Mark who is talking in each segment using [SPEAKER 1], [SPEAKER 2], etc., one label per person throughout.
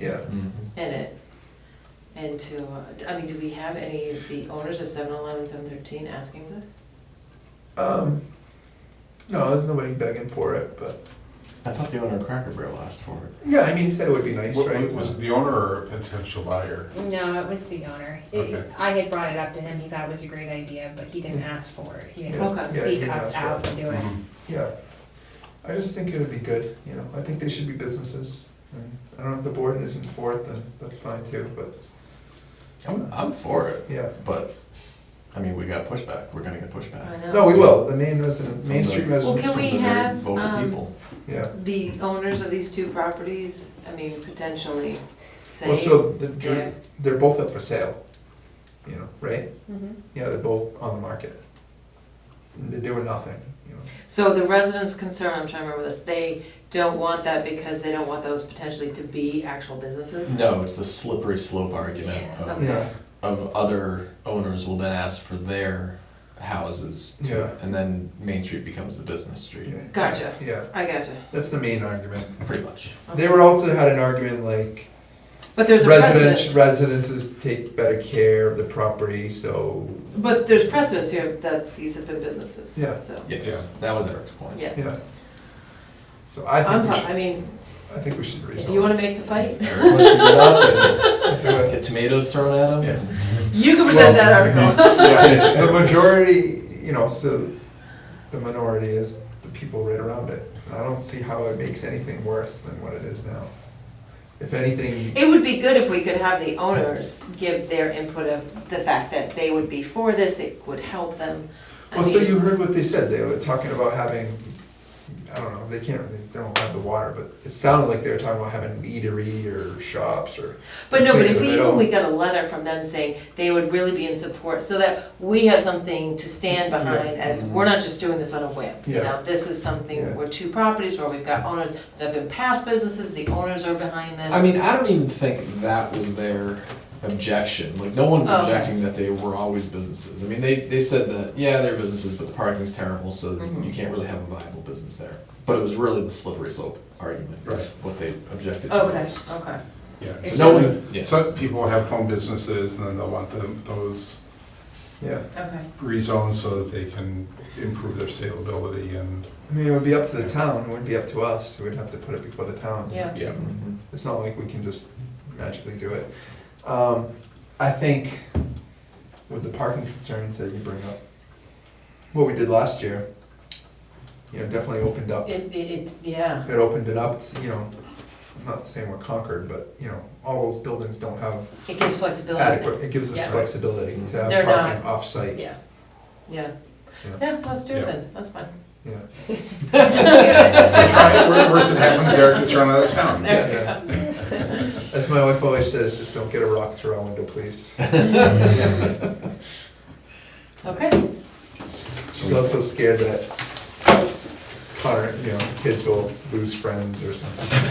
[SPEAKER 1] Yeah.
[SPEAKER 2] Mm-hmm.
[SPEAKER 3] in it. And to, uh, I mean, do we have any of the owners of 7-Eleven, 7-Eleven, asking this?
[SPEAKER 1] Um, no, there's nobody begging for it, but
[SPEAKER 2] I thought the owner of Cracker Barrel asked for it.
[SPEAKER 1] yeah, I mean, he said it would be nice,
[SPEAKER 4] Wa-
[SPEAKER 1] right?
[SPEAKER 4] wa- Was it the owner or a potential buyer?
[SPEAKER 5] No, it was the owner. It-
[SPEAKER 4] Okay.
[SPEAKER 5] I had brought it up to him, he thought it was a great idea, but he didn't ask for it. He
[SPEAKER 1] Yeah,
[SPEAKER 5] didn't
[SPEAKER 3] Okay.
[SPEAKER 1] yeah, he
[SPEAKER 5] seek
[SPEAKER 1] didn't ask
[SPEAKER 5] us
[SPEAKER 1] for
[SPEAKER 5] out
[SPEAKER 1] it.
[SPEAKER 5] to do it.
[SPEAKER 4] Mhm.
[SPEAKER 1] Yeah, I just think it would be good. You know, I think they should be businesses. And I don't know if the board isn't for it, then that's fine too. But
[SPEAKER 2] I'm, I'm for it,
[SPEAKER 1] yeah,
[SPEAKER 2] but, I mean, we got pushback, we're gonna get
[SPEAKER 3] I
[SPEAKER 2] pushback.
[SPEAKER 3] know.
[SPEAKER 1] no, we will. The main resident, Main
[SPEAKER 2] From the-
[SPEAKER 1] Street
[SPEAKER 3] Well,
[SPEAKER 1] residents.
[SPEAKER 3] can
[SPEAKER 2] From
[SPEAKER 3] we
[SPEAKER 2] the very
[SPEAKER 3] have,
[SPEAKER 2] vocal
[SPEAKER 3] um,
[SPEAKER 2] people.
[SPEAKER 1] Yeah.
[SPEAKER 3] The owners of these two properties, I mean, potentially say.
[SPEAKER 1] Well, so the,
[SPEAKER 3] they're-
[SPEAKER 1] they're, they're both up for sale. You know, right?
[SPEAKER 3] Mm-hmm.
[SPEAKER 5] Mhm.
[SPEAKER 1] Yeah, they're both on the market. And they're doing nothing. You know.
[SPEAKER 3] So the residents concerned, I'm trying to remember this, they don't want that because they don't want those potentially to be actual businesses?
[SPEAKER 2] No, it's the slippery slope argument
[SPEAKER 5] Yeah.
[SPEAKER 2] of,
[SPEAKER 3] Okay.
[SPEAKER 1] Yeah,
[SPEAKER 2] of other owners will then ask for their houses. to-
[SPEAKER 1] Yeah.
[SPEAKER 2] And then Main Street becomes the business street,
[SPEAKER 1] yeah.
[SPEAKER 3] Gotcha.
[SPEAKER 1] Yeah,
[SPEAKER 3] I gotcha.
[SPEAKER 1] that's the main argument.
[SPEAKER 2] pretty much.
[SPEAKER 1] They were also had an argument like
[SPEAKER 3] But there's a
[SPEAKER 1] residents,
[SPEAKER 3] precedence,
[SPEAKER 1] residences take better care of the property, so,
[SPEAKER 3] but there's precedence here that these have been businesses,
[SPEAKER 1] Yeah.
[SPEAKER 3] so,
[SPEAKER 4] Yeah.
[SPEAKER 2] Yes, that was Eric's point.
[SPEAKER 3] yeah.
[SPEAKER 1] yeah. So I
[SPEAKER 3] I'm,
[SPEAKER 1] think we
[SPEAKER 3] fi- I
[SPEAKER 1] should,
[SPEAKER 3] mean,
[SPEAKER 1] I think we should
[SPEAKER 3] if you
[SPEAKER 1] rezone.
[SPEAKER 3] wanna make the fight,
[SPEAKER 2] Eric wants to get up
[SPEAKER 1] it. Do
[SPEAKER 2] and
[SPEAKER 1] it.
[SPEAKER 2] get tomatoes thrown at him.
[SPEAKER 3] you can present that article.
[SPEAKER 4] Yeah.
[SPEAKER 1] The majority, you know, so the minority is the people right around it. And I don't see how it makes anything worse than what it is now. If anything,
[SPEAKER 3] It would be good if we could have the owners give their input of the fact that they would be for this, it would help them. I
[SPEAKER 1] well, so
[SPEAKER 3] mean,
[SPEAKER 1] you heard what they said, they were talking about having, I don't know, they can't, really- they don't have the water, but it sounded like they were talking about having an eatery or shops or.
[SPEAKER 3] But no, but if
[SPEAKER 1] Thinking
[SPEAKER 3] we,
[SPEAKER 1] of it all.
[SPEAKER 3] even we got a letter from them saying they would really be in support, so that we have something to stand behind as, we're not just doing this on a whim. You
[SPEAKER 1] Yeah.
[SPEAKER 3] know, this is
[SPEAKER 1] Yeah.
[SPEAKER 3] something, we're two properties where we've got owners that have been past businesses, the owners are behind this.
[SPEAKER 2] I mean, I don't even think that was their objection. Like, no one's
[SPEAKER 3] Oh.
[SPEAKER 2] objecting that they were always businesses. I mean, they, they said that, yeah, they're businesses, but the parking's terrible, so
[SPEAKER 3] Mhm.
[SPEAKER 2] you can't really have a viable business there. But it was really the slippery slope argument, was
[SPEAKER 1] Right.
[SPEAKER 2] what they objected to
[SPEAKER 3] Okay,
[SPEAKER 2] most.
[SPEAKER 3] okay.
[SPEAKER 4] Yeah.
[SPEAKER 5] It's
[SPEAKER 2] No
[SPEAKER 4] So-
[SPEAKER 2] one, yeah.
[SPEAKER 4] Some people have home businesses and then they'll want them, those
[SPEAKER 1] Yeah,
[SPEAKER 3] Okay.
[SPEAKER 4] rezoned so that they can improve their saleability and,
[SPEAKER 1] I mean, it would be up to the town, it wouldn't be up to us, we'd have to put it before the town.
[SPEAKER 3] Yeah.
[SPEAKER 4] yeah.
[SPEAKER 2] Mhm.
[SPEAKER 1] It's not like we can just magically do it. Um, I think with the parking concerns that you bring up, what we did last year, you know, definitely opened up. It
[SPEAKER 3] It, it, it, yeah,
[SPEAKER 1] opened it up, to, you know, I'm not saying we're conquered, but, you know, all those buildings don't have
[SPEAKER 3] it gives flexibility.
[SPEAKER 1] adequate, it gives us
[SPEAKER 3] Yeah.
[SPEAKER 1] flexibility to have
[SPEAKER 3] They're
[SPEAKER 1] parking off-site.
[SPEAKER 3] Yeah, yeah.
[SPEAKER 1] Yeah.
[SPEAKER 3] Yeah, let's do it
[SPEAKER 4] Yeah.
[SPEAKER 3] then, that's fine.
[SPEAKER 1] Yeah,
[SPEAKER 4] Right, Worse it happens, Eric gets thrown out of town.
[SPEAKER 3] There
[SPEAKER 1] Yeah.
[SPEAKER 3] we go.
[SPEAKER 1] as my wife always says, just don't get a rock through our window, please.
[SPEAKER 3] Okay,
[SPEAKER 1] She's also scared that Connor, you know, kids will lose friends or something.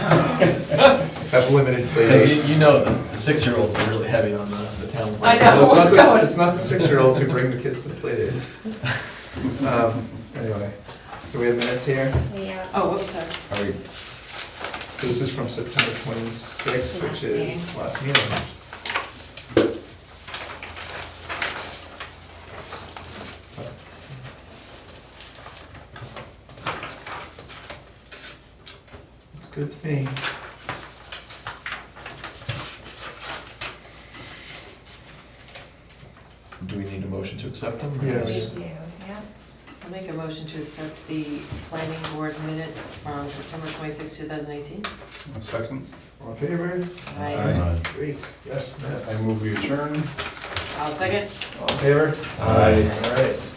[SPEAKER 1] Have limited play
[SPEAKER 2] Because
[SPEAKER 1] dates.
[SPEAKER 2] you, you know, the six-year-olds are really heavy on the, the town.
[SPEAKER 3] I
[SPEAKER 2] plan.
[SPEAKER 3] know.
[SPEAKER 1] Well, it's, not
[SPEAKER 3] What's
[SPEAKER 1] the, it's not the six-year-olds who bring the kids to the play dates. Um, anyway, so we have minutes here.
[SPEAKER 5] Yeah.
[SPEAKER 3] oh, whoops, sorry.
[SPEAKER 2] Are we,
[SPEAKER 1] So this is from September 26th, which is last meeting. Looks good to me.
[SPEAKER 2] do we need a motion to accept them?
[SPEAKER 1] Yeah,
[SPEAKER 5] We
[SPEAKER 1] Yes.
[SPEAKER 5] do, yeah.
[SPEAKER 3] I'll make a motion to accept the planning board minutes from September twenty-six, two thousand eighteen.
[SPEAKER 4] One second,
[SPEAKER 1] All in favor?
[SPEAKER 3] I,
[SPEAKER 1] Great, yes,
[SPEAKER 4] I
[SPEAKER 1] minutes.
[SPEAKER 4] move we adjourn.
[SPEAKER 3] I'll second.
[SPEAKER 1] All in favor?
[SPEAKER 4] Aye.
[SPEAKER 1] All right.